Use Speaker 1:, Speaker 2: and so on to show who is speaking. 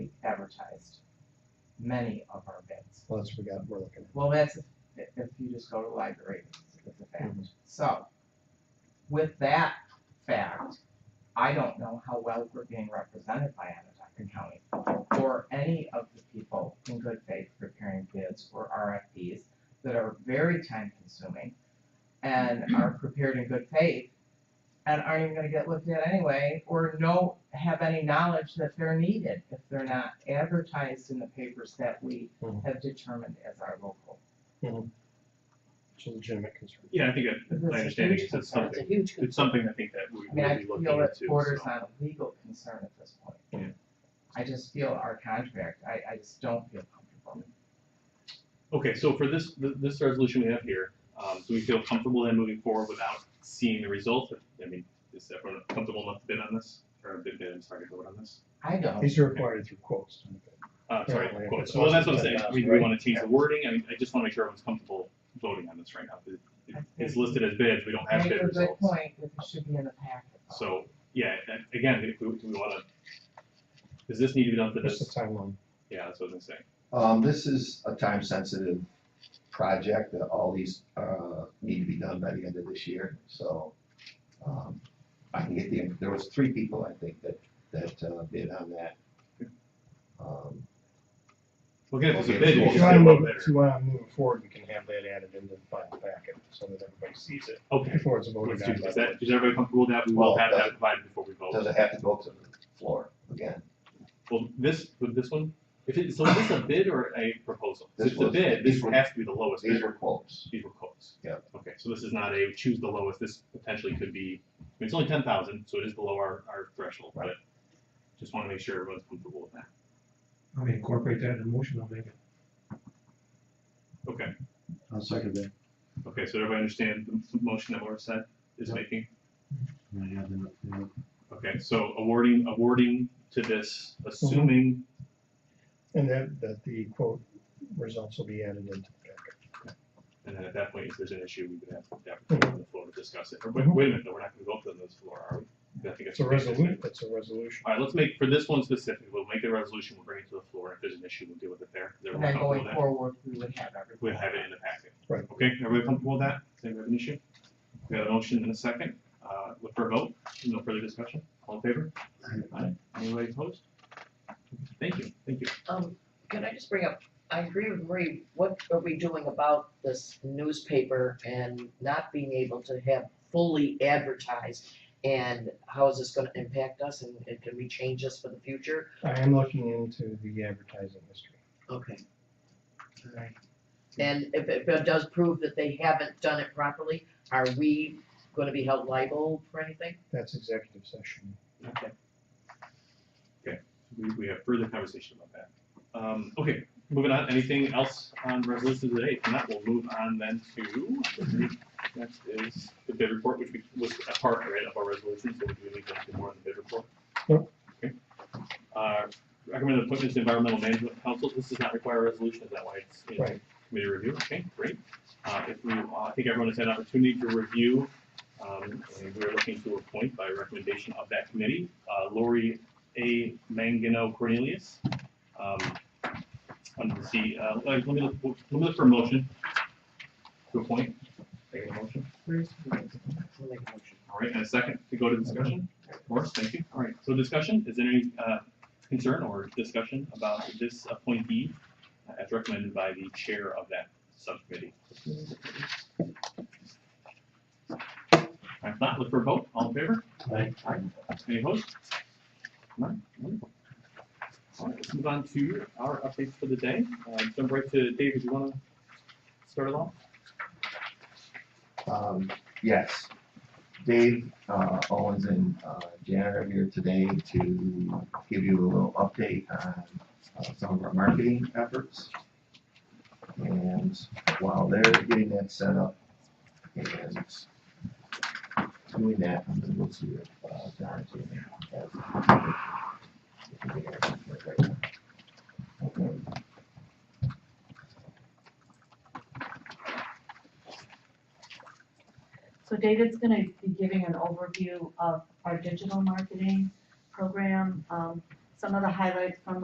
Speaker 1: advertised many of our bids.
Speaker 2: Plus, we got, we're looking
Speaker 1: Well, that's if, if you just go to the library, it's a fact. So, with that fact, I don't know how well we're being represented by Onondaga County or any of the people in good faith preparing bids or RFPs that are very time consuming and are prepared in good faith and aren't even gonna get looked at anyway, or no, have any knowledge that they're needed if they're not advertised in the papers that we
Speaker 2: Mhm.
Speaker 1: have determined as our local.
Speaker 2: at, it's a legitimate concern.
Speaker 3: Yeah, I think
Speaker 1: This
Speaker 3: that,
Speaker 1: is
Speaker 3: my understanding
Speaker 1: huge
Speaker 3: is it's
Speaker 1: concern.
Speaker 4: It's a
Speaker 3: something,
Speaker 4: huge
Speaker 3: it's
Speaker 4: concern.
Speaker 3: something I think that we
Speaker 1: I mean, I
Speaker 3: will be looking
Speaker 1: feel it
Speaker 3: into,
Speaker 1: borders
Speaker 3: so.
Speaker 1: on a legal concern at this point.
Speaker 3: Yeah.
Speaker 1: I just feel our contract, I, I just don't feel comfortable.
Speaker 3: Okay, so for this, th- this resolution we have here, um, do we feel comfortable in moving forward without seeing the results? I mean, is everyone comfortable enough to bid on this, or bid, bid, I'm sorry, to vote on this?
Speaker 1: I don't,
Speaker 2: These are required through quotes.
Speaker 3: Uh, sorry,
Speaker 2: Apparently, if
Speaker 3: quote.
Speaker 2: it's
Speaker 3: So, well, that's what I'm
Speaker 2: less than
Speaker 3: saying, I mean, do we
Speaker 2: 10,000,
Speaker 3: wanna change the wording, I mean, I just wanna make sure everyone's comfortable voting on this right now. It- it-
Speaker 1: I
Speaker 3: It's
Speaker 1: think-
Speaker 3: listed as bids, we don't have
Speaker 1: make
Speaker 3: bid
Speaker 1: a good
Speaker 3: results.
Speaker 1: point, that it should be in the packet. though.
Speaker 3: So, yeah, and again, if we, do we wanna, does this need to be done for
Speaker 2: Just the
Speaker 3: this?
Speaker 2: timeline.
Speaker 3: Yeah, that's what I was gonna say.
Speaker 5: Um, this is a time-sensitive project, that all these, uh, need to be done by the end of this year, so, um, I can get the, there was three people, I think, that, that uh, bid on that. Um,
Speaker 3: Well, again, if it's a
Speaker 5: Okay,
Speaker 3: bid,
Speaker 5: so
Speaker 3: we'll
Speaker 2: If
Speaker 3: just
Speaker 2: you wanna
Speaker 3: get one
Speaker 2: move,
Speaker 3: bidder.
Speaker 2: if you wanna move it forward, you can have that added into the final packet so that everybody sees it
Speaker 3: Okay,
Speaker 2: before it's voted
Speaker 3: let's do,
Speaker 2: on.
Speaker 3: is that, is everybody comfortable with that? We will
Speaker 5: Well,
Speaker 3: have
Speaker 5: does
Speaker 3: that
Speaker 5: it-
Speaker 3: provided before we vote.
Speaker 5: Does it have to go to the floor again?
Speaker 3: Well, this, with this one, if it, so is this a bid or a proposal? If
Speaker 5: This
Speaker 3: it's a
Speaker 5: was-
Speaker 3: bid, this
Speaker 5: these were-
Speaker 3: has to be the lowest
Speaker 5: These
Speaker 3: bidder.
Speaker 5: were quotes.
Speaker 3: These were quotes.
Speaker 5: Yeah.
Speaker 3: Okay, so this is not a choose the lowest, this potentially could be, I mean, it's only ten thousand, so it is below our, our threshold, but just wanna make sure everyone's comfortable with that.
Speaker 6: I mean, incorporate that in the motion, I'll make it.
Speaker 3: Okay,
Speaker 2: I'll second that.
Speaker 3: okay, so everybody understand the motion that Laura said is
Speaker 2: Yeah.
Speaker 3: making?
Speaker 2: I have enough.
Speaker 3: Okay, so awarding, awarding to this, assuming,
Speaker 2: And that, that the quote results will be added into the packet.
Speaker 3: and then at that point, if there's an issue, we would have, to have to go on the floor to discuss it. Or wait, wait a minute, no, we're not gonna go up to this floor, are we? I think
Speaker 2: It's a resolution, it's a resolution.
Speaker 3: All right, let's make, for this one specifically, we'll make a resolution, we'll bring it to the floor, if there's an issue, we'll deal with it there. Is
Speaker 1: And
Speaker 3: everyone
Speaker 1: then
Speaker 3: comfortable
Speaker 1: going
Speaker 3: with that?
Speaker 1: forward, we would have everything.
Speaker 3: We'll have it in the packet.
Speaker 2: Right.
Speaker 3: Okay, everybody comfortable with that? Does anybody have an issue? We have a motion and a second, uh, look for a vote, no further discussion, all in favor? Aye. Anybody opposed? Thank you, thank you.
Speaker 4: Um, can I just bring up, I agree with Marie, what are we doing about this newspaper and not being able to have fully advertised? And how is this gonna impact us and and can we change this for the future?
Speaker 2: I am looking into the advertising history.
Speaker 4: Okay. Alright. And if if it does prove that they haven't done it properly, are we gonna be held liable for anything?
Speaker 2: That's executive session.
Speaker 3: Okay. Okay, we, we have further conversation about that. Um, okay, moving on, anything else on resolution today? If not, we'll move on then to, next is the bid report, which we, was a part, right, of our resolution, so we do need to do more on the bid report.
Speaker 2: Yep.
Speaker 3: Okay. Uh, recommended appointments to environmental management council, this does not require a resolution, is that why it's in
Speaker 2: Right.
Speaker 3: committee review? Okay, great. Uh, if we, uh, I think everyone has had an opportunity to review um, and we're looking to appoint by recommendation of that committee, uh, Lori A. Mangano Cornelius. Um, Under the C, uh, let me, look- let me look for a motion to appoint. Take a motion.
Speaker 4: Where's We'll make a motion.
Speaker 3: All right, and a second to go to discussion. Morris, thank you. All right, so discussion, is there any uh, concern or discussion about this appointee uh, as recommended by the chair of that subcommittee? If not, look for a vote. All in favor?
Speaker 6: Aye.
Speaker 3: Any opposed? None? Wonderful. All right, let's move on to our updates for the day. Uh, Jump right to David, you want to start it off?
Speaker 5: Um, yes. Dave, uh, Owens and, uh, Janet are here today to give you a little update on, uh, some of our marketing efforts. And while they're getting that set up and doing that, I'm gonna go to, uh, Don's email. Okay.
Speaker 7: So David's gonna be giving an overview of our digital marketing program, um, some of the highlights from